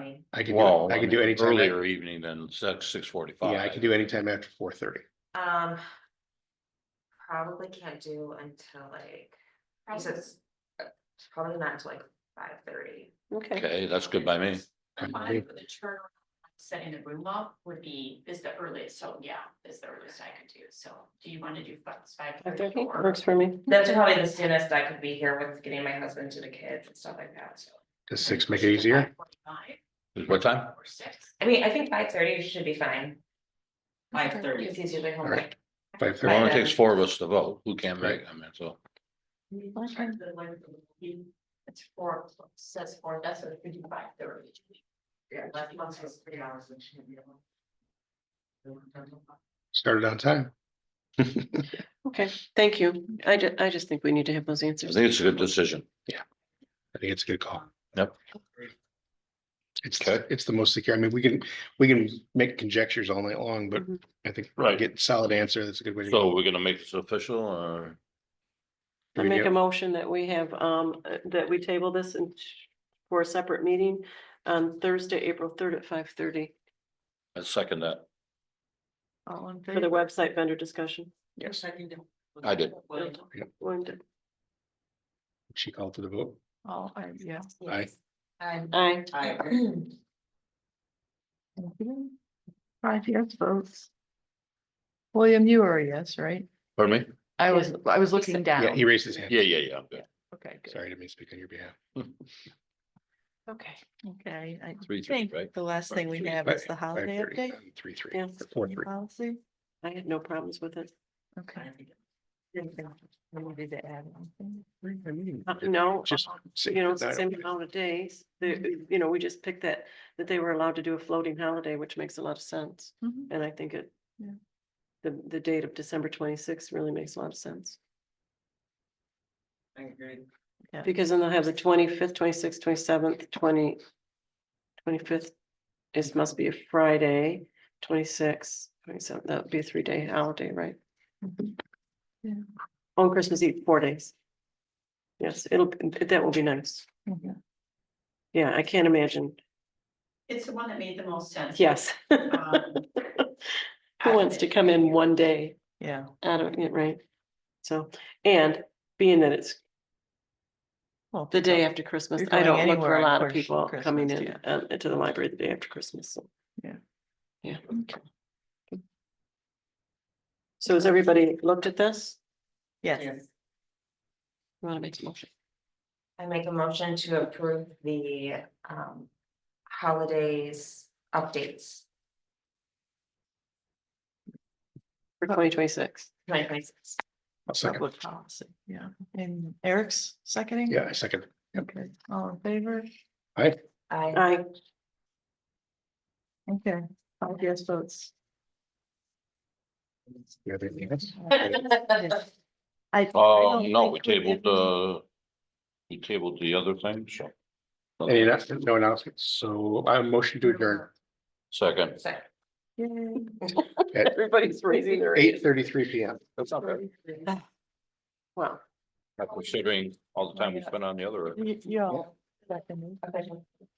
evening? I could, do Well, it- I could do anytime, a- Earlier evening than six, six forty-five. yeah, I could do anytime after four thirty. Um. Probably can't do until like, because it's uh, it's probably not until like five thirty. Okay, Okay, that's good by me. Five for the turnaround, setting the room up would be, is the earliest, so yeah, is the earliest I could do, so do you want to do five five thirty thirty or? works for me. That's probably the soonest I could be here with getting my husband to the kids and stuff like that, so. Does six make it easier? 5:45 What time? Or six, I mean, I think five thirty should be fine. Five thirty. Because he's usually home. Alright, like- Five It thirty, only takes four of us to vote. Who can make, I mean, so. Start the one from the- It's four, o'clock, says four, that's what we do five thirty. Yeah, last month was three hours and shouldn't be able. started on time. Okay, thank you. I ju- I just think we need to have those I answers. think it's a good decision. I think it's a good call. Yep. It's, Okay. it's the most secure. I mean, we can, we can make conjectures all night long, but Mhm. I think Right. get solid answer. That's a good way to. go. So we're gonna make this official or? I Do we make get- a motion that we have, um, uh, that we table this and for a separate meeting on Thursday, April third at five thirty I second that. All in for the favor? website vendor discussion. Yes. I did. One, She called for the vote. All, I, yeah. Aye. Um, aye. Five yes votes. William, you are a yes, right? Pardon me? I was, I was looking Yeah, down. he raised his hand. Yeah, yeah, yeah. I'm good. Okay, good. Sorry, I didn't mean to speak on your behalf. Okay, Okay, I Three, three, think right? the last thing we Three, have is the holiday update. Three, three, yeah, or four, three. Policy, I had no problems with it. okay. Wanted to add anything? Uh, No, Just say you know, it's the that. same amount of days. The, you know, we just picked that, that they were allowed to do a floating holiday, which makes a lot of sense. Mhm. And I think it. Yeah. The, the date of December twenty-sixth really makes a lot of sense. Yeah. Because then they'll have the twenty-fifth, twenty-sixth, twenty-seventh, twenty. Twenty-fifth is, must be a Friday, twenty-sixth, twenty-seventh, that would be a three-day holiday, right? Mhm. Yeah. On Christmas Eve, four days. Yes, it'll, that will be nice. Mhm. Yeah, I can't imagine. It's the one that made the most sense. Yes. Um, Who wants to come in one day Yeah, out of it, right? So, and being that it's well. the day yeah. after Christmas, You're I don't going look for anywhere a on lot of Christ- people coming Christmas, in um, into the library the day after Christmas, so. Yeah. Yeah. So has everybody looked at this? Yes. You want to make a motion? I make a motion to approve the um holidays updates. For twenty twenty-six, Twenty twenty six. I'll second. Public policy, yeah. And Eric's seconding? Yeah, I second. Okay, all in favor? I, I, Okay, five yes votes. You have anything else? Yes. I. Uh, no, we tabled the, we tabled the other thing, so. Any announcements? No announcements. So I motion to adjourn Second. sorry. uh, everybody's raising their. eight thirty-three P M. That's not bad. Wow. Considering all the time we spent on the other. You, you all. seconded.